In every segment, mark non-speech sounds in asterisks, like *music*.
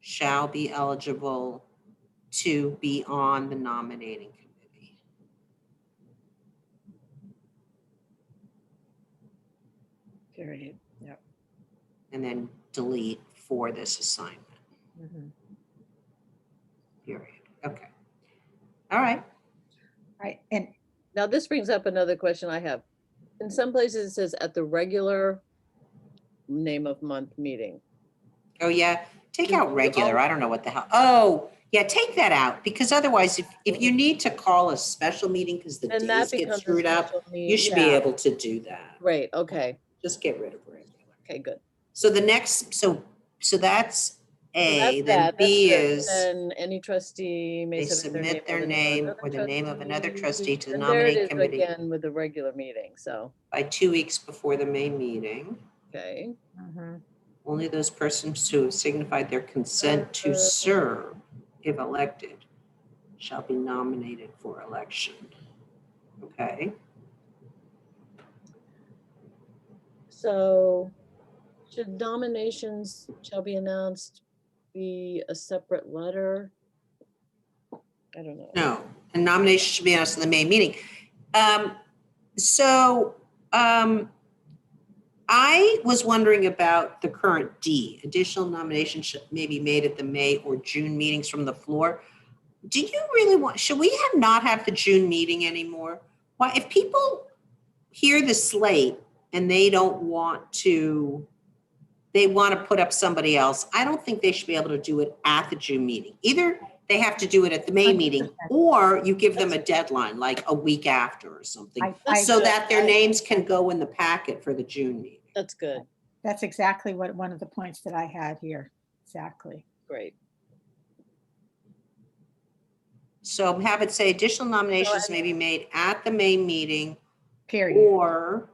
shall be eligible to be on the nominating committee. Period. Yep. And then delete for this assignment, Mm-hmm. Mhm. period. Okay. All right. All right, and Now, this brings up another question I have. In some places, it says at the regular name of month meeting. Oh, yeah. Take out regular. I don't know what the hell. Oh, yeah, take that out because otherwise if, if you need to call a special meeting because the Then that days get becomes. a screwed up, special need- you should be Yeah. able to do that. Great, okay, Just get rid of regular. okay, good. So the next, so, so that's So A, that's then that, that's B good. is, Then any trustee may they submit their name. submit their name or the name of another trustee to the And there it nominating is committee. Again, with the regular meeting, so, by two weeks before the May meeting, okay, Mhm. only those persons who have signified their consent to Uh. serve, if elected, shall be nominated for election. Okay, so should nominations shall be announced be a separate letter? I don't know. no, a nomination should be announced in the May meeting. Um, so, um, I was wondering about the current D, additional nominations should may be made at the May or June meetings from the floor. Do you really want, should we have not have the June meeting anymore? Why, if people hear the slate and they don't want to, they want to put up somebody else, I don't think they should be able to do it at the June meeting. Either they have to do it at the May meeting, 100%. or you give them a deadline, like a week after or something. I- I- So that their I- names can go in the packet for the June meeting. That's good, that's exactly what, one of the points that I had here, exactly. great. So have it say additional nominations I- may be made at the May meeting Period. or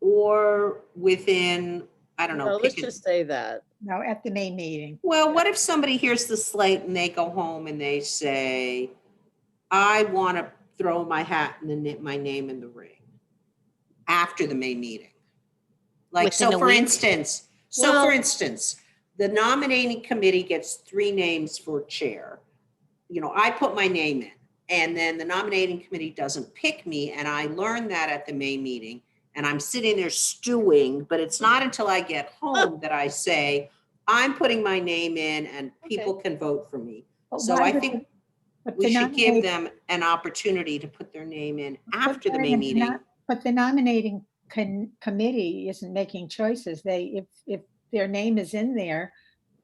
or within, I don't know, No, let's pick a- just say that. No, at the May meeting. well, what if somebody hears the slate and they go home and they say, I want to throw my hat and then my name in the ring after the May meeting? Like, so Within a for week? instance, so Well- for instance, the nominating committee gets three names for chair. You know, I put my name in and then the nominating committee doesn't pick me and I learn that at the May meeting and I'm sitting there stewing, but it's not until I get home that I say, I'm putting my name in and people can vote for me. But So why I would think the- but We the should give nominate- them an opportunity to put their name in after the But May they're meeting. not- But the nominating con- committee isn't making choices. They, if, if their name is in there,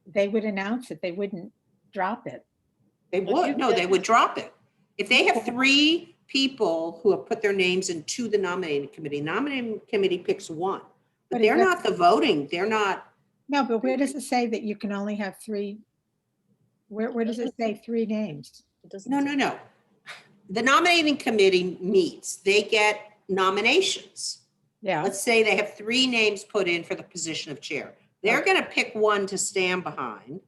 they would announce it. They wouldn't drop it. They But you would, no, they get- would drop it. If they have Okay. three people who have put their names into the nominating committee, nominating committee picks one. But But is they're that- not the voting, they're not, No, but where does it say that you can only have three? Where, where does it say three names? It doesn't no, say- no, no. The nominating committee meets, they get nominations. Yeah, let's say they have three names put in for the position of chair. They're going to pick one to stand behind,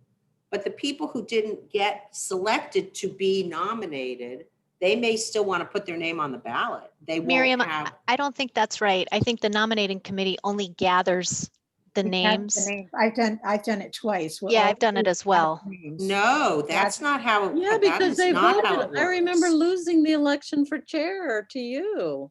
but the people who didn't get selected to be nominated, they may still want to put their name on the ballot. They Miriam, won't I have, I don't think that's right. I think the nominating committee only gathers the we have names. I've done, I've done it twice. We're Yeah, all I've done it three as well. names. no, that's not how. Yeah, that because is they not how voted. it I remember works. losing the election for chair to you.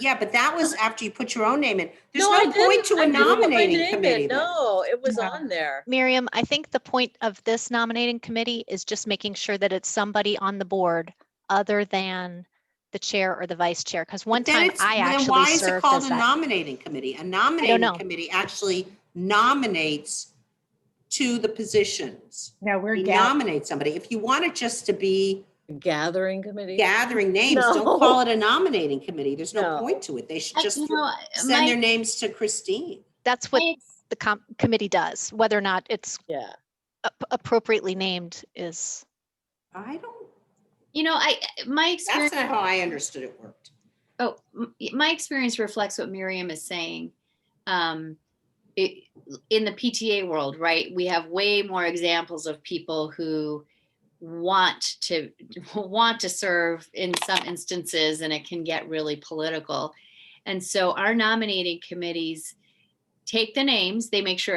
Yeah, but that was after you put your own name in. There's No, I no point to didn't. I a didn't put my nominating name in. committee. then. No, it was Yeah. on there. Miriam, I think the point of this nominating committee is just making sure that it's somebody on the board other than the chair or the vice chair, because one But then time it's- I then actually Why is it served called as a that. nominating committee? A nominating know. committee actually nominates to the positions. No, we're We gathering. nominate somebody. If you want it just to be Gathering committee. gathering names, No. don't call it a nominating committee. There's no No. point to it. They should Uh, I- just you know, send their my- names to Christine. That's what it's- the com- committee does, whether or not it's Yeah. ap- appropriately named is, I don't, You know, I eh, my that's experience. not how I understood it worked. Oh, m- my experience reflects what Miriam is saying. Um, it, in the PTA world, right? We have way more examples of people who want to *laughs* want to serve in some instances, and it can get really political. And so, our nominating committees take the names; they make sure